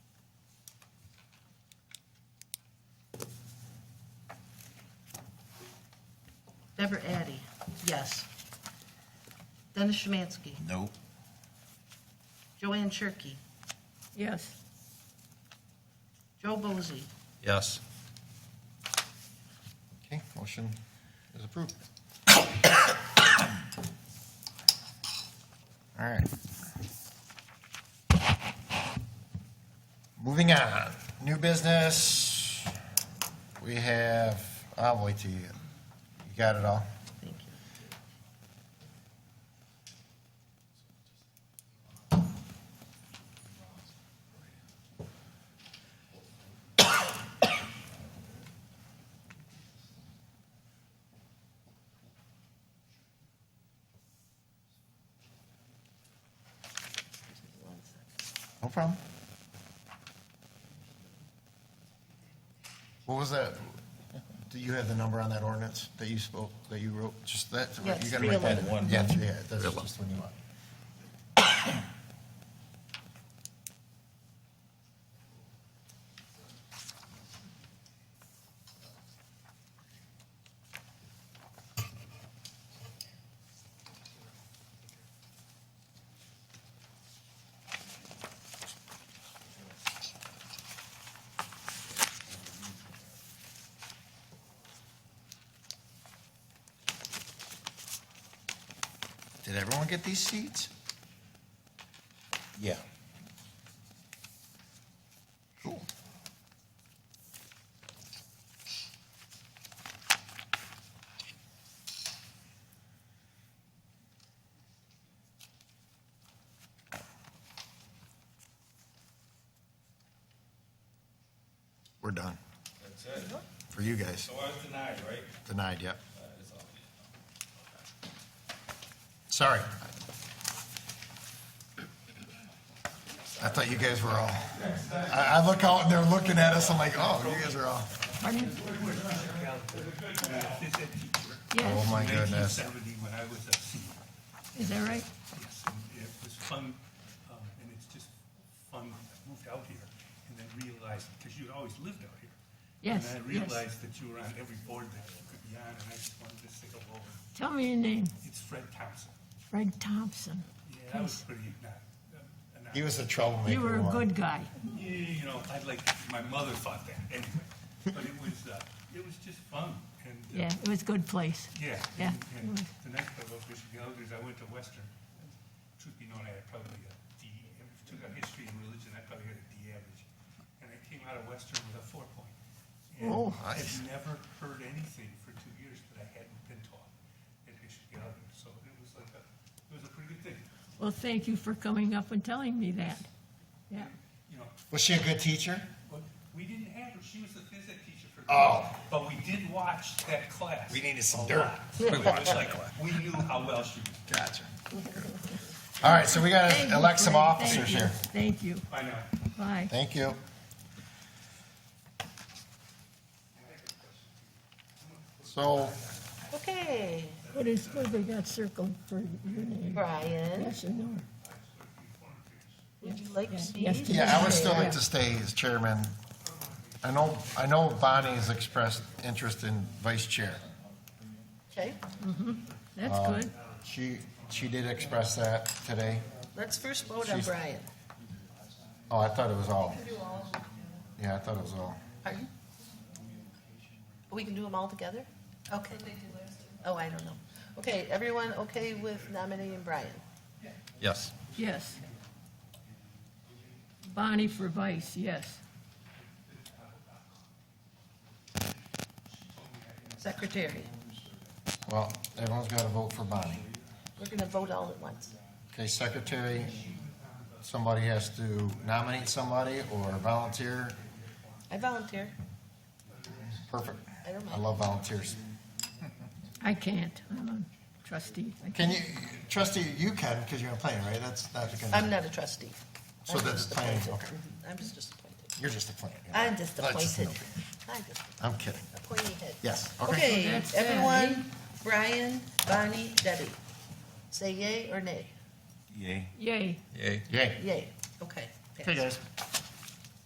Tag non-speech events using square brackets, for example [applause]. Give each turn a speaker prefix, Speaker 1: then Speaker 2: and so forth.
Speaker 1: Deborah Addy, yes. Dennis Szymanski,
Speaker 2: No.
Speaker 1: Joanne Shirkey,
Speaker 3: Yes.
Speaker 1: Joe Bozy,
Speaker 2: Yes.
Speaker 4: Okay, motion is approved. [coughs] All right. Moving on, new business, we have, I'll wait till you, you got it all?
Speaker 1: thank you.
Speaker 4: No problem. What was that? Do you have the number on that ordinance that you spoke, that you wrote, just that?
Speaker 1: Yeah,
Speaker 4: you gotta write that-
Speaker 2: 311.
Speaker 4: Yeah, three, yeah, that's
Speaker 2: 311.
Speaker 4: just when you want. Did everyone get these seats? Yeah. Cool. We're done
Speaker 5: That's it.
Speaker 4: for you guys.
Speaker 5: So I was denied, right?
Speaker 4: Denied, yep.
Speaker 5: That is all.
Speaker 4: Sorry. I thought you guys were all, I, I look out and they're looking at us, I'm like, oh, you guys are all, oh
Speaker 3: Yes,
Speaker 4: my goodness.
Speaker 6: 1970 when I was a senior.
Speaker 3: is that right?
Speaker 6: Yes, and It was fun, um, and it's just fun. I moved out here and then realized, because you'd always lived out here.
Speaker 3: Yes,
Speaker 6: And I
Speaker 3: yes.
Speaker 6: realized that you were on every board that you could be on, and I just wanted to say hello.
Speaker 3: Tell me your name,
Speaker 6: It's Fred Thompson.
Speaker 3: Fred Thompson.
Speaker 6: Yeah, that was pretty, not, not.
Speaker 4: He was a troublemaker.
Speaker 3: You were a
Speaker 4: one.
Speaker 3: good guy.
Speaker 6: Yeah, you know, I'd like, my mother thought that anyway, but it was, uh, it was just fun and. uh,
Speaker 3: Yeah, it was a good place.
Speaker 6: Yeah.
Speaker 3: Yeah.
Speaker 6: and- and The next level of Michigan Elders, I went to Western. Truth be known, I had probably a D, if you took out history and religion, I probably had a D average. And I came out of Western with a four point. And
Speaker 4: Oh, nice.
Speaker 6: I've never heard anything for two years that I hadn't been taught at Michigan Elders. So it was like a, it was a pretty good thing.
Speaker 3: Well, thank you for coming up and telling me that. Yeah,
Speaker 6: You know,
Speaker 4: Was she a good teacher?
Speaker 6: but we didn't have her, she was the phys ed teacher for.
Speaker 4: Oh.
Speaker 6: But we did watch that class.
Speaker 4: We needed some
Speaker 6: a
Speaker 4: dirt.
Speaker 6: lot. It was like, we knew how well she was.
Speaker 4: Gotcha. All right, so we
Speaker 3: Thank
Speaker 4: gotta
Speaker 3: you,
Speaker 4: elect some
Speaker 3: Fred.
Speaker 4: officers
Speaker 3: Thank you.
Speaker 4: here.
Speaker 3: Thank you,
Speaker 6: I know.
Speaker 3: bye.
Speaker 4: Thank you. So,
Speaker 1: Okay,
Speaker 3: What is, what have they got circled for your name?
Speaker 1: Brian,
Speaker 3: Yes or no?
Speaker 1: would you like to see?
Speaker 3: Yes, please.
Speaker 4: yeah, I would still like to stay as chairman. I know, I know Bonnie has expressed interest in vice chair.
Speaker 1: Okay,
Speaker 3: That's good.
Speaker 4: She, she did express that today.
Speaker 1: let's first vote on
Speaker 4: She's-
Speaker 1: Brian.
Speaker 4: Oh, I thought it was all. Yeah, I thought it was all.
Speaker 1: Pardon? We can do them all together? Okay. Oh, I don't know. Okay, everyone okay with nominating Brian?
Speaker 2: Yes.
Speaker 3: Yes. Bonnie for vice, yes.
Speaker 1: Secretary,
Speaker 4: Well, everyone's got to vote for Bonnie.
Speaker 1: we're going to vote all at once.
Speaker 4: Okay, secretary, somebody has to nominate somebody or volunteer.
Speaker 1: I volunteer.
Speaker 4: Perfect.
Speaker 1: I don't
Speaker 4: I
Speaker 1: mind.
Speaker 4: love volunteers.
Speaker 3: I can't, I'm a trustee. I
Speaker 4: Can you, trustee, you can, because you're in planning, right? That's not gonna.
Speaker 1: I'm not a trustee.
Speaker 4: So
Speaker 1: I'm
Speaker 4: that's
Speaker 1: just
Speaker 4: planning,
Speaker 1: appointed.
Speaker 4: okay.
Speaker 1: Mhm, I'm just disappointed.
Speaker 4: You're just a planner. you're not-
Speaker 1: I'm just
Speaker 4: that's just
Speaker 1: appointed.
Speaker 4: an
Speaker 1: I'm just
Speaker 4: op- I'm kidding.
Speaker 1: a pointy head.
Speaker 4: Yes, okay.
Speaker 1: Okay,
Speaker 3: That's sad,
Speaker 1: everyone, Brian, Bonnie, Debbie, say yay or nay?
Speaker 2: Yay.
Speaker 3: Yay,
Speaker 2: Yay.
Speaker 4: Yay.
Speaker 1: Yay. Okay.
Speaker 4: Okay,
Speaker 1: passed.
Speaker 4: guys.